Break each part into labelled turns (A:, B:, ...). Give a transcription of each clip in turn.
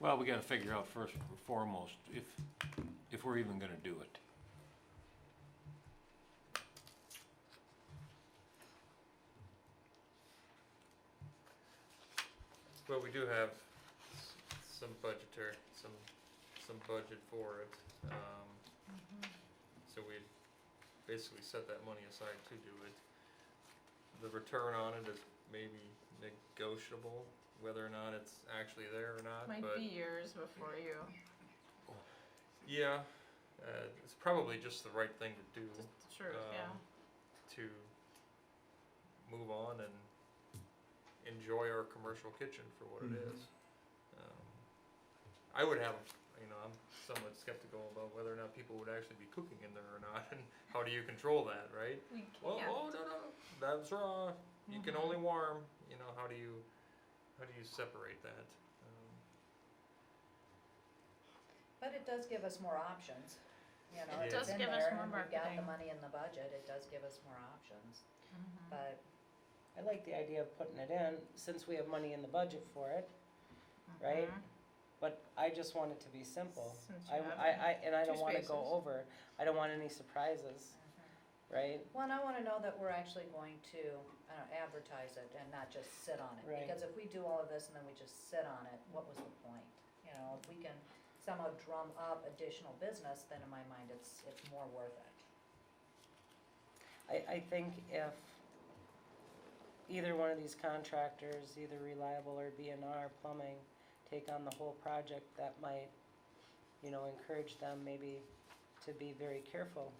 A: Well, we gotta figure out first and foremost if, if we're even gonna do it.
B: Well, we do have s- some budgetary, some, some budget for it, um, so we basically set that money aside to do it. The return on it is maybe negotiable, whether or not it's actually there or not,
C: Might
B: but, Mm-hmm.
C: be years before you.
B: yeah, uh, it's probably just the right thing to do,
C: Just the truth, yeah.
B: Um, to move on and enjoy our commercial kitchen for what it
D: Mm-hmm.
E: Mhm.
B: is. Um, I would have, you know, I'm somewhat skeptical about whether or not people would actually be cooking in there or not, and how do you control that, right?
C: We
B: Well,
C: can't.
B: oh no no, that's raw. You can
C: Mhm.
B: only warm. You know how do you, how do you separate that? Um,
F: But it does give us more options, you know,
B: It
F: if
B: does
F: it's in
C: give us
F: there
C: more
F: and we've got the
C: marketing.
F: money in the budget, it does give us more options,
C: Mhm.
F: but
D: I like the idea of putting it in, since we have money in the budget for it, right?
C: Mhm.
D: but I just want it to be simple.
C: Since you
D: I,
C: have
D: I, I, and I
C: two
D: don't wanna
C: spaces.
D: go over, I don't want any surprises, right?
F: Well, and I wanna know that we're actually going to, I don't know, advertise it and not just sit on it,
D: Right.
F: because if we do all of this and then we just sit on it, what was the point? You know, if we can somehow drum up additional business, then in my mind, it's, it's more worth it.
D: I, I think if either one of these contractors, either Reliable or B and R Plumbing, take on the whole project, that might, you know, encourage them maybe to be very careful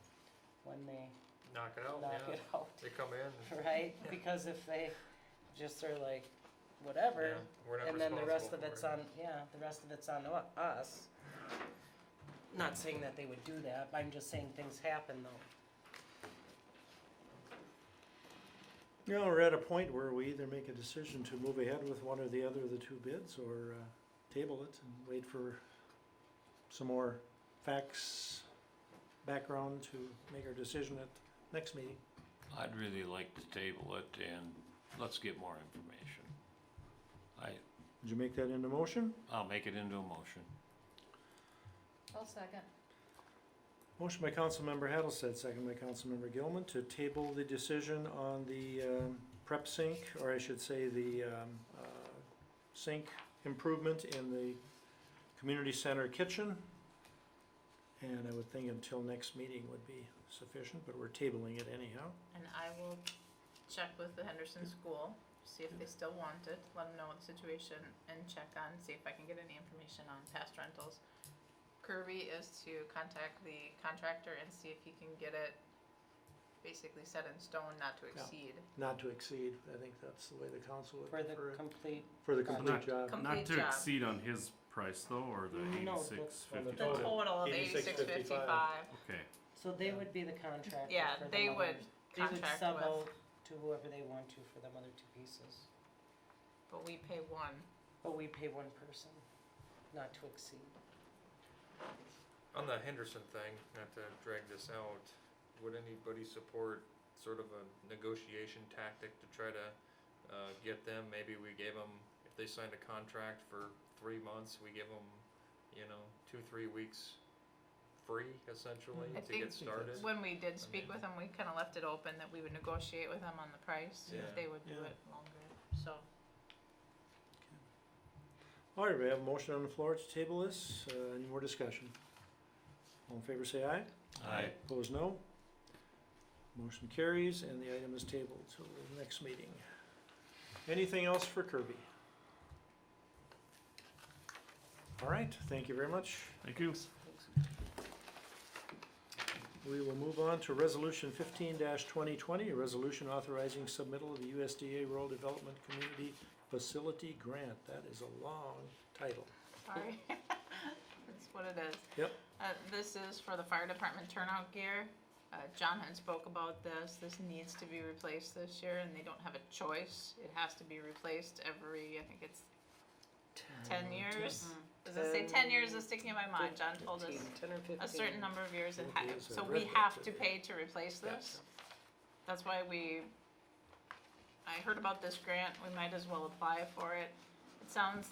D: when they
B: knock it out.
D: knock
B: Oh, yeah.
D: it out,
B: They come in.
D: right? Because if they just are like, whatever,
B: yeah, we're not
D: And then the rest
B: responsible
D: of
B: for
D: it's
B: it.
D: on, yeah, the rest of it's on u- us. Not saying that they would do that, I'm just saying things happen though.
E: You know, we're at a point where we either make a decision to move ahead with one or the other of the two bids or uh, table it and wait for some more facts, background to make our decision at next meeting.
A: I'd really like to table it and let's get more information. I,
E: Did you make that into motion?
A: I'll make it into a motion.
F: I'll second.
E: Motion by Councilmember Hattlestead, second by Councilmember Gilman to table the decision on the um, prep sink, or I should say the um, uh, sink improvement in the community center kitchen. And I would think until next meeting would be sufficient, but we're tabling it anyhow.
C: And I will check with the Henderson School, see if they still want it, let them know what the situation, and check on, see if I can get any information on past rentals. Kirby is to contact the contractor and see if he can get it basically set in stone, not to exceed.
E: Not to exceed, I think that's the way the council would
D: For the
E: prefer it,
D: complete,
E: for the complete
G: Not-
E: job.
C: Com-
G: Not
C: Complete
G: to
C: job.
G: exceed on his price though, or the
D: No, that's
G: eighty-six
D: on
G: fifty?
C: The total of eighty-six
E: 86.55.
C: fifty-five,
G: Okay,
D: so they would be the contractor for the
C: Yeah, they
D: other-
C: would
D: They would
C: contract
D: sub
C: with.
D: out to whoever they want to for them other two pieces,
C: but we pay one.
D: but we pay one person, not to exceed.
B: On the Henderson thing, not to drag this out, would anybody support sort of a negotiation tactic to try to uh, get them? Maybe we gave them, if they signed a contract for three months, we give them, you know, two, three weeks free essentially
C: Mm-hmm. I
B: to get
C: think-
B: started.
C: When we did speak with them, we kinda left it open that we would negotiate with them on the price,
B: Yeah.
C: if they would do
E: Yeah.
C: it longer, so.
E: All right, we have a motion on the floor to table this. Uh, Any more discussion? All in favor, say aye.
A: I,
E: Opposed, no. Motion carries and the item is tabled till the next meeting. Anything else for Kirby? All right, thank you very much.
G: thank you.
E: We will move on to resolution fifteen twenty twenty, a resolution authorizing submittal of the USDA Rural Development Community Facility Grant. That is a long title.
C: Sorry. That's what it is.
E: Yep.
C: Uh, this is for the fire department turnout gear. Uh, John had spoke about this. This needs to be replaced this year and they don't have a choice. It has to be replaced every, I think it's
D: Mm-hmm.
C: ten years. Does it say ten years is sticking in my mind? John told us
D: Fifteen, Ten or fifteen.
C: a certain number of years it
E: It
C: ha-
E: is, I
C: so
E: read
C: we
E: that
C: have to
E: today.
C: pay to replace this. That's why we, I heard about this grant, we might as well apply for it. It sounds